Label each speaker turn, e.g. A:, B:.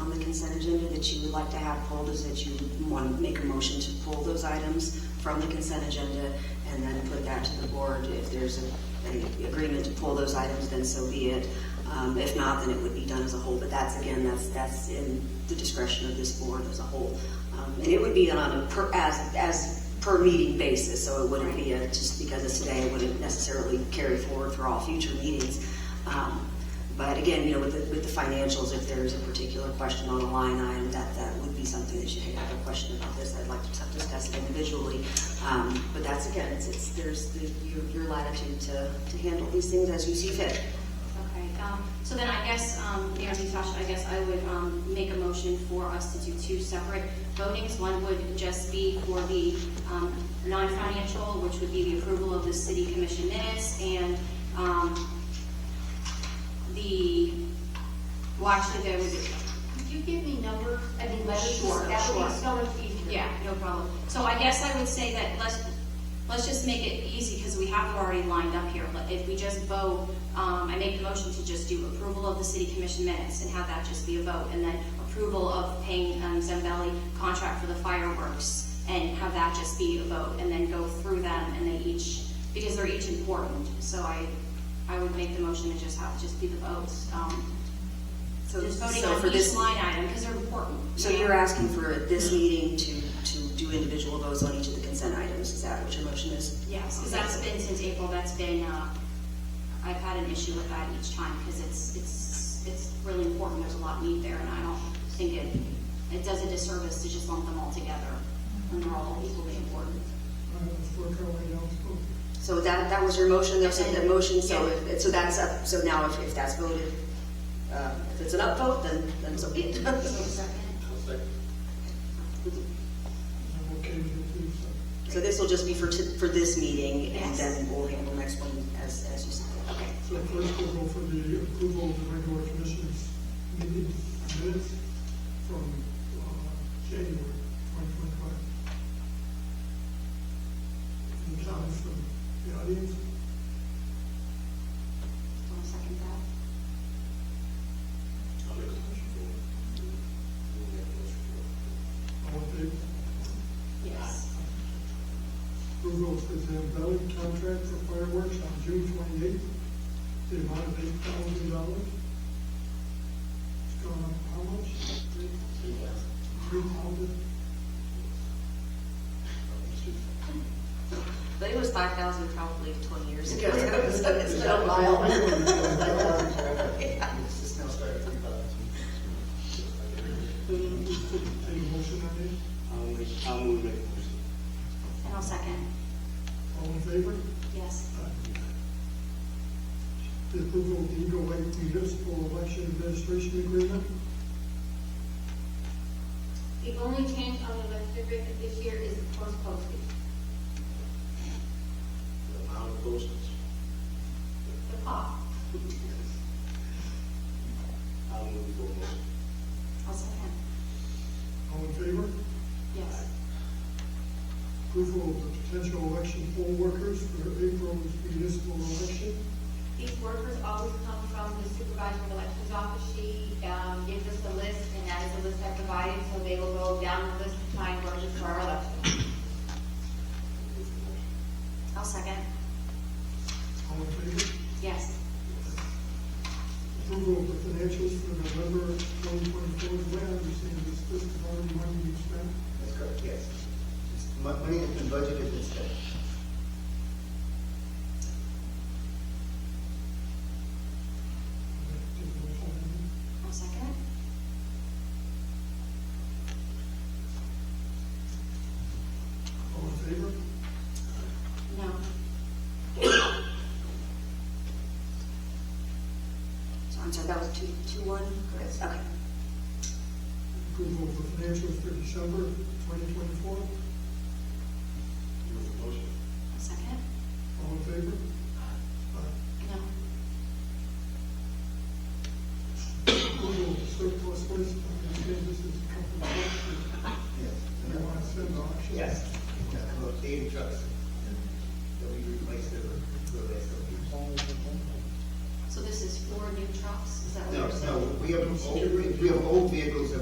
A: Um, consent agenda that you would like to have pulled is that you want to make a motion to pull those items from the consent agenda and then put that to the board. If there's a- a agreement to pull those items, then so be it. Um, If not, then it would be done as a whole, but that's, again, that's, that's in the discretion of this board as a whole. Um, And it would be on a per, as, as per meeting basis, so it wouldn't be a, just because it's today, it wouldn't necessarily carry forward for all future meetings. Um, But again, you know, with the, with the financials, if there's a particular question on a line item, that, that would be something that you hey, I have a question about this, I'd like to discuss it individually. Um, But that's, again, it's, it's, there's the- your your latitude to, to handle these things as you see fit.
B: Okay, um, so then I guess, um, Mayor Natasha, I guess I would, um, make a motion for us to do two separate votings. One would just be for the, um, non-financial, which would be the approval of the city commission minutes and, um, the, well, actually, there was, could you give me numbers? I mean, letters?
C: Sure,
B: That would be
C: sure.
B: so much easier. Yeah, no problem. So I guess I would say that let's, let's just make it easy because we have already lined up here. But If we just vote, um, I make the motion to just do approval of the city commission minutes and have that just be a vote. And then approval of paying, um, Zambelli contract for the fireworks and have that just be a vote. And then go through them and they each, because they're each important. So I, I would make the motion to just have, just be the votes. um,
A: So-
B: Just voting
A: so
B: on
A: for
B: each
A: this-
B: line item because they're important.
A: So you're asking for this meeting to, to do individual votes on each of the consent items, is that what your motion is?
B: Yes, because that's been since April, that's been, uh, I've had an issue with that each time, because it's, it's, it's really important, there's a lot of need there, and I don't think it, it does a disservice to just lump them all together, when they're all equally important.
A: So that, that was your motion, there's a a motion, so,
B: Yeah.
A: if- so that's up, so now if, if that's voted, uh, if it's an upvote, then, then so be it. So this will just be for, t- for this meeting, and
B: Yes.
A: then we'll handle the next one as, as you said. Okay.
C: So first we'll go for the approval of the regular commission's meeting minutes from uh, January twenty twenty-five. Any comments from the audience?
B: I'll second that.
C: All in favor?
B: Yes.
C: Approval for the valid contract for fireworks on June twenty-eighth, the amount of eight thousand dollars. It's gone up how much? Three thousand?
B: But it was five thousand probably twenty years
A: So it's- it's been a while.
C: Then we put a motion on it.
D: I'll make, I'll move it.
B: And I'll second,
C: All in favor?
B: yes.
C: The approval of the Eagle Lake Municipal Election Administration Agreement.
E: The only change on the election agreement this year is the post postage. The cost.
D: I'll move for motion.
B: I'll second,
C: All in favor?
B: yes.
C: Approval of the potential election poll workers for April's municipal election.
E: These workers always come from the supervisor of elections office. She, um, gives us the list, and that is the list I provided, so they will go down the list to find workers for our election.
B: I'll second,
C: All in favor?
B: yes.
C: Approval of the financials for November twenty twenty-four. The way I understand this, this is already money we spent.
F: That's correct, yes. It's mo- Money has been budgeted instead.
C: Take a motion on it.
B: I'll second,
C: All in favor?
B: no.
A: So I'm sorry, that was two, two, one, correct, okay.
C: Approval of the financials for December twenty twenty-four.
D: Move the motion.
B: I'll second,
C: All in favor?